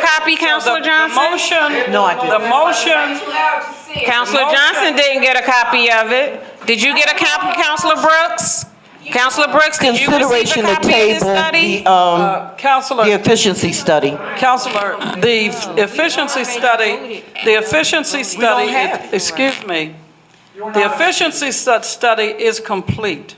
copy, Counselor The- Johnson? The motion. No, I didn't. The motion, Too loud to see it. Counselor motion- Johnson didn't get a copy of it. Did you get a copy, Counselor Brooks? Counselor Brooks, did you receive a Consideration to copy of this table study? the, um, uh, Counselor. the efficiency study. Counselor, the efficiency study, the efficiency study, excuse me, the efficiency stu- study is complete.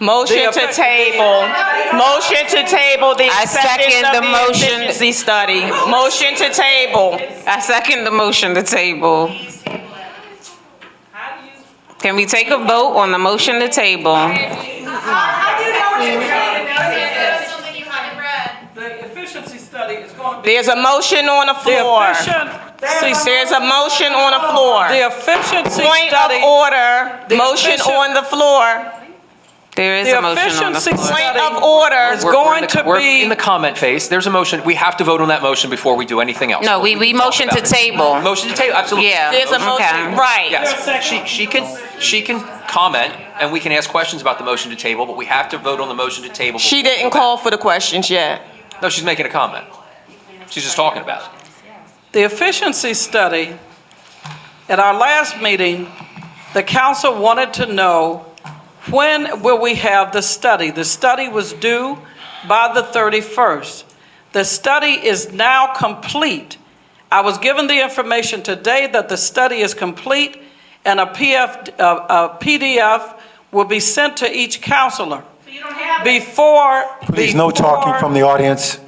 Motion The to effect- table, motion to table the I second acceptance the of the motion. efficiency study. Motion to table. I second the motion to table. Can we take a vote on the motion to table? I do know what you're saying. Now, it's something you haven't read. The efficiency study is going to be. There's a motion on the The floor. efficiency, There's a motion on the floor. the efficiency Point of study, order, The motion efficient- on the floor. There is the a motion on the efficiency floor. Point study of order. is We're- we're in going the- to We're be. in the comment phase. There's a motion. We have to vote on that motion before we do anything else. No, we, we motion to table. Motion to table, absolutely. Yeah. There's a Okay. motion, right. Yes. She, she can, she can comment and we can ask questions about the motion to table, but we have to vote on the motion to table. She didn't call for the questions yet. No, she's making a comment. She's just talking about it. The efficiency study, at our last meeting, the council wanted to know, when will we have the study? The study was due by the 31st. The study is now complete. I was given the information today that the study is complete, and a PF, uh, a PDF will be sent to each counselor before. Please, no talking before- from the audience.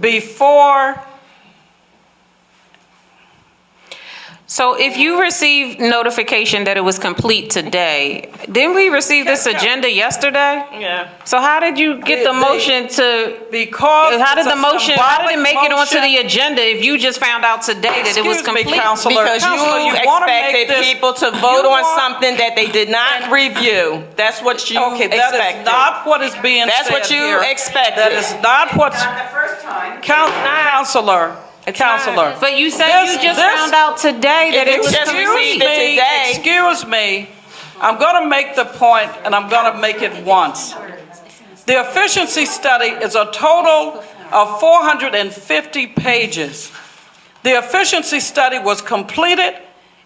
Before So if you received notification that it was complete today, didn't we receive this agenda yesterday? Yeah. So how did you get the They- they- motion to, Because. how did it's a the motion, how did it symbolic make it onto the motion- agenda if you just found out today that it was Excuse me, complete? Council- Counselor, Because Counselor, you you wanna make expected this- people to vote you on want- something that they did not review. That's what you Okay, that is expected. not what is being said That's what you here. expected. That is not what's, Not the first time. Coun- Counselor, Counselor. But you said you This- just this- found out today that it If was you just Excuse received complete. it me, today. excuse me. I'm going to make the point, and I'm going to make it once. The efficiency study is a total of 450 pages. The efficiency study was completed.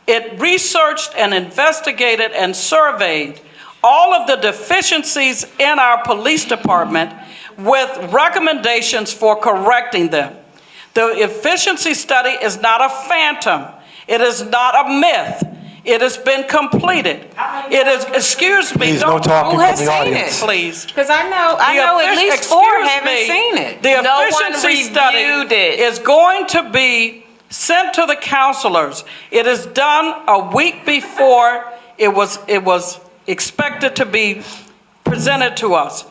It researched and investigated and surveyed all of the deficiencies in our police department with recommendations for correcting them. The efficiency study is not a phantom. It is not a myth. It has been completed. It is, excuse me. Please, no don't- talking Who has from the seen audience. it? Please. Because I know, I The know at effic- least four excuse haven't me, seen it. The No one efficiency study reviewed it. is going to be sent to the counselors. It is done a week before it was, it was expected to be presented to us.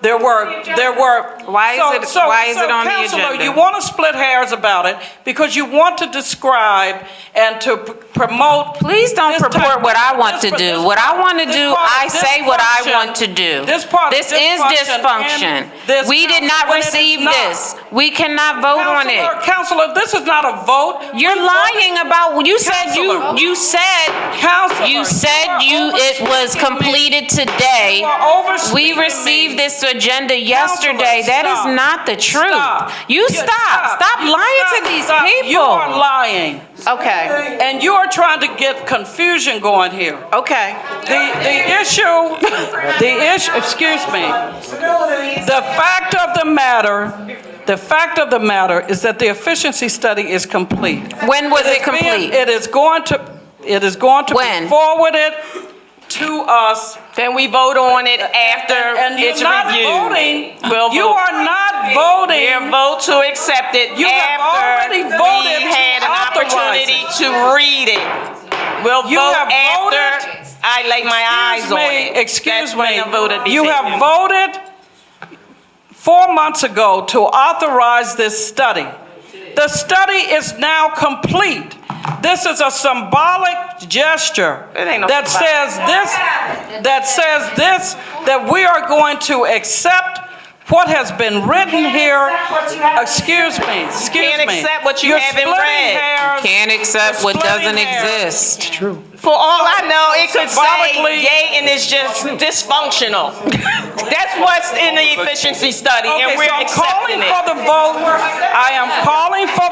There were, there were. Why is so- it- so- why is so, it on the Counselor, agenda? you want to split hairs about it because you want to describe and to p- promote. Please don't this purport type- what I want this- to do. this- What I want to this do, part of I say what I dysfunction- want to do. This part of This is dysfunction. dysfunction. and this We did not when it is receive not. this. We cannot vote on it. Counselor, Counselor, this is not a vote. You're lying about, you said you, Counselor. you said, Counselor. you said are you, it was overspeaking me. completed today. You are overspeaking We me. received this agenda Counselor, yesterday. That stop. is not the Stop. truth. You stop, stop You lying to stop. these Stop. You are people. lying. Okay, And you are trying to get confusion going here. okay. The, the issue, the issue, excuse me. The fact of the matter, the fact of the matter is that the efficiency study is complete. When was it is being- complete? It is going to, it is going to be When? forwarded to us Then we vote on it after and it's you're not reviewed. voting. We'll You vote. are not We'll voting. vote to accept it You have after already we voted to had an authorize opportunity it. to read it. We'll You vote have after voted- I lay my eyes Excuse on me, it. excuse That's when me. the vote will be You have taken. voted four months ago to authorize this study. The study is now complete. This is a symbolic gesture It ain't no that symbolic. says this, that says this, that we are going to accept what has been written here. Excuse me, excuse me. can't accept what you You're haven't splitting read. hairs. Can't accept what Splitting doesn't hairs. exist. For all I know, it could say Symbolically- yay and it's just dysfunctional. That's what's in the efficiency study Okay, and so we're I'm accepting calling it. for the vote. I am calling for